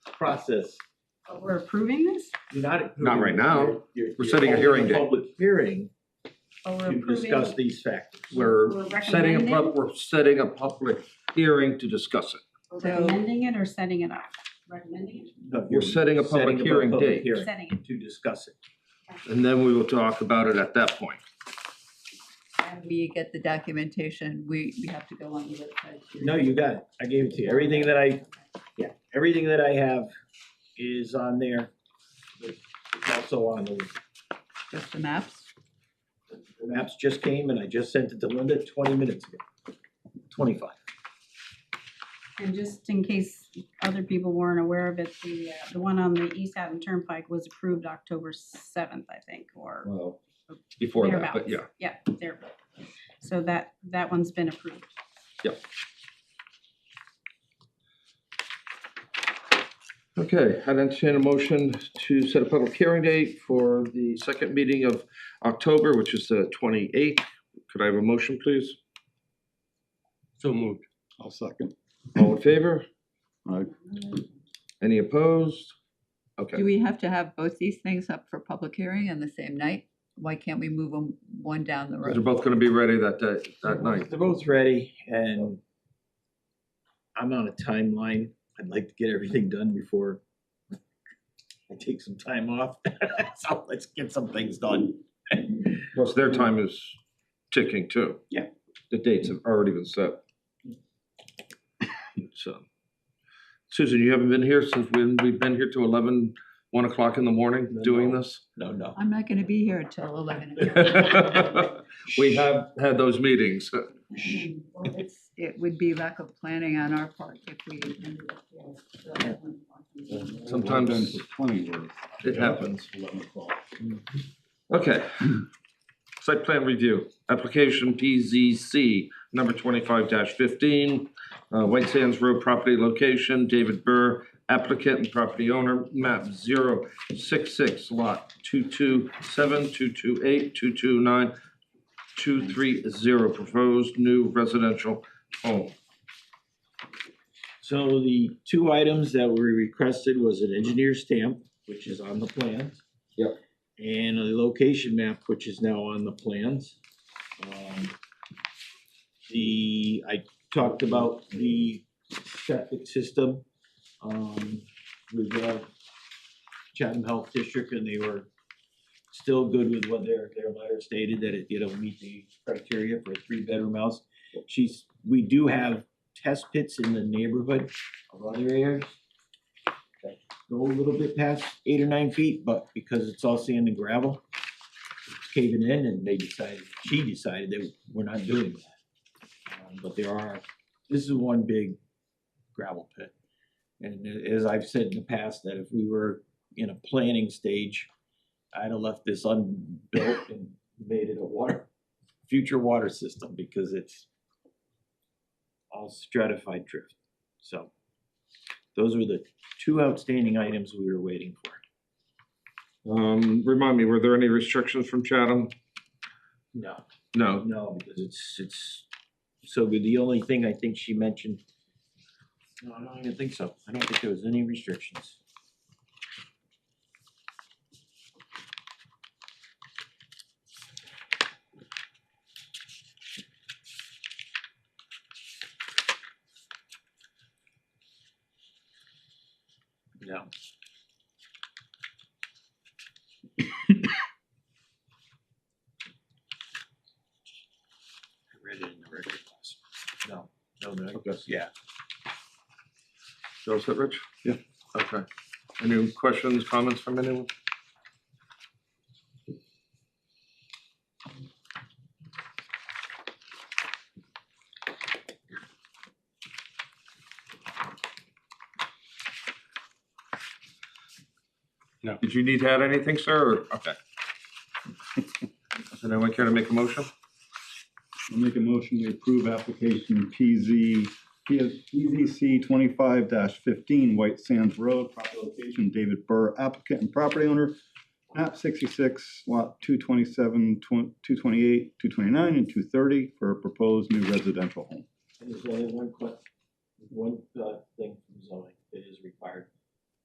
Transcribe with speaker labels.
Speaker 1: process.
Speaker 2: But We're approving this?
Speaker 1: You're not.
Speaker 3: Not right
Speaker 1: approving-
Speaker 3: now.
Speaker 1: you're- you're-
Speaker 3: We're setting a
Speaker 1: you're
Speaker 3: hearing
Speaker 1: holding
Speaker 3: date.
Speaker 1: Public hearing
Speaker 2: But we're
Speaker 1: to discuss
Speaker 2: approving,
Speaker 1: these factors.
Speaker 3: We're
Speaker 2: we're
Speaker 3: setting a,
Speaker 2: recommending,
Speaker 3: pub- we're setting a public hearing to discuss it.
Speaker 2: we're recommending it or setting it up? Recommending
Speaker 1: No,
Speaker 3: We're setting a public hearing date.
Speaker 2: it, setting it.
Speaker 1: To discuss it.
Speaker 3: And then we will talk about it at that point.
Speaker 4: and we get the documentation, we, we have to go on the website. to-
Speaker 1: No, you got it. I gave it to you. Everything that I, yeah, everything that I have is on there. It's also on the,
Speaker 4: Just the maps.
Speaker 1: the maps just came and I just sent it to Linda twenty minutes ago. Twenty-five.
Speaker 2: And just in case other people weren't aware of it, the, uh, the one on the East Haddon Turnpike was approved October seventh, I think, or
Speaker 3: Well, Before that, but
Speaker 2: thereabouts.
Speaker 3: yeah.
Speaker 2: Yeah, there. So that, that one's been approved.
Speaker 3: Okay, I'd entertain a motion to set a public hearing date for the second meeting of October, which is the twenty-eighth. Could I have a motion, please?
Speaker 5: So moved.
Speaker 6: I'll second.
Speaker 3: All in favor?
Speaker 6: Aye.
Speaker 3: Any opposed? Okay,
Speaker 4: Do we have to have both these things up for public hearing on the same night? Why can't we move them one down the
Speaker 3: they're
Speaker 4: road?
Speaker 3: both gonna be ready that day, that night.
Speaker 1: They're both ready and I'm on a timeline. I'd like to get everything done before I take some time off. So let's get some things done.
Speaker 3: Plus, their time is ticking too.
Speaker 1: Yeah.
Speaker 3: The dates have already been set. So, Susan, you haven't been here since when we've been here till eleven, one o'clock in the morning
Speaker 1: No,
Speaker 3: doing
Speaker 1: no.
Speaker 3: this?
Speaker 1: No, no.
Speaker 4: I'm not gonna be here till eleven.
Speaker 3: We have had those meetings.
Speaker 4: Well, it's, it would be lack of planning on our part if we. ended up there.
Speaker 3: Sometimes-
Speaker 6: Well done for Twenty words.
Speaker 3: It happens.
Speaker 6: Eleven o'clock.
Speaker 3: Okay. Site plan review, application PZC number twenty-five fifteen, uh, White Sands Road property location, David Burr, applicant and property owner, map 066 lot two-two-seven, two-two-eight, two-two-nine, two-three-zero, proposed new residential home.
Speaker 1: So the two items that were requested was an engineer stamp, which is on the plans.
Speaker 3: Yep.
Speaker 1: And a location map, which is now on the plans. Um, The, I talked about the septic system, um, with the Chatham Health District, and they were still good with what their, their letter stated, that it, you know, meet the criteria for a three-bedroom house. She's, we do have test pits in the neighborhood of other areas. that Go a little bit past eight or nine feet, but because it's all sand and gravel, it's caving in and they decided, she decided that we're not doing that. Um, But there are, this is one big gravel pit. And a- as I've said in the past, that if we were in a planning stage, I'd have left this unbuilt and made it a water, future water system because it's all stratified drift. So those were the two outstanding items we were waiting for.
Speaker 3: Um, remind me, were there any restrictions from Chatham?
Speaker 1: No.
Speaker 3: No,
Speaker 1: No, because it's, it's, so good. the only thing I think she mentioned. No, I don't even think so. I don't think there was any restrictions. No. I read it in the record class. No, no, no,
Speaker 3: Okay.
Speaker 1: yeah.
Speaker 3: Joe, is that Rich? Yeah. Okay. Any questions, comments from anyone?
Speaker 5: No.
Speaker 3: Did you need to add anything, sir? or- Okay. Does anyone care to make a motion?
Speaker 6: I'll make a motion to approve application PZ, PS PZC twenty-five fifteen, White Sands Road, property location, David Burr, applicant and property owner. Map sixty-six, lot 227, 228, two twenty-nine, and two thirty for a proposed new residential home.
Speaker 1: And there's only one que- one, uh, thing from zoning that is required.